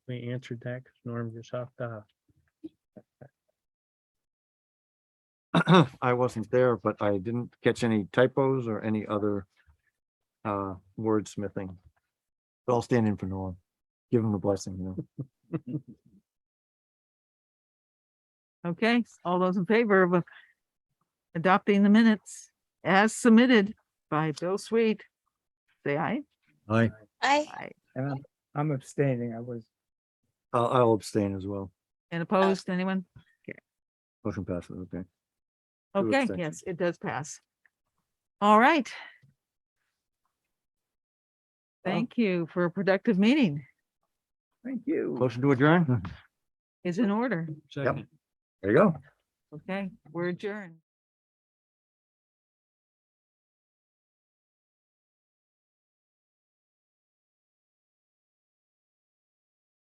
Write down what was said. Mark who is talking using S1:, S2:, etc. S1: we answered that because Norm just hopped off.
S2: I wasn't there, but I didn't catch any typos or any other uh, wordsmithing. But I'll stand in for Norm. Give him the blessing, you know.
S3: Okay, all those in favor of uh, adopting the minutes as submitted by Bill Sweet, say aye.
S2: I,
S4: I,
S5: And I'm, I'm abstaining. I was,
S2: I'll I'll abstain as well.
S3: And opposed, anyone?
S2: Motion passes, okay. Two
S3: Okay,
S2: abstentions.
S3: yes, it does pass. All right.
S5: Well-
S3: Thank you for a productive meeting.
S5: thank you.
S2: Motion to adjourn?
S3: Is in order.
S1: Second.
S2: There you go.
S3: Okay, we're adjourned.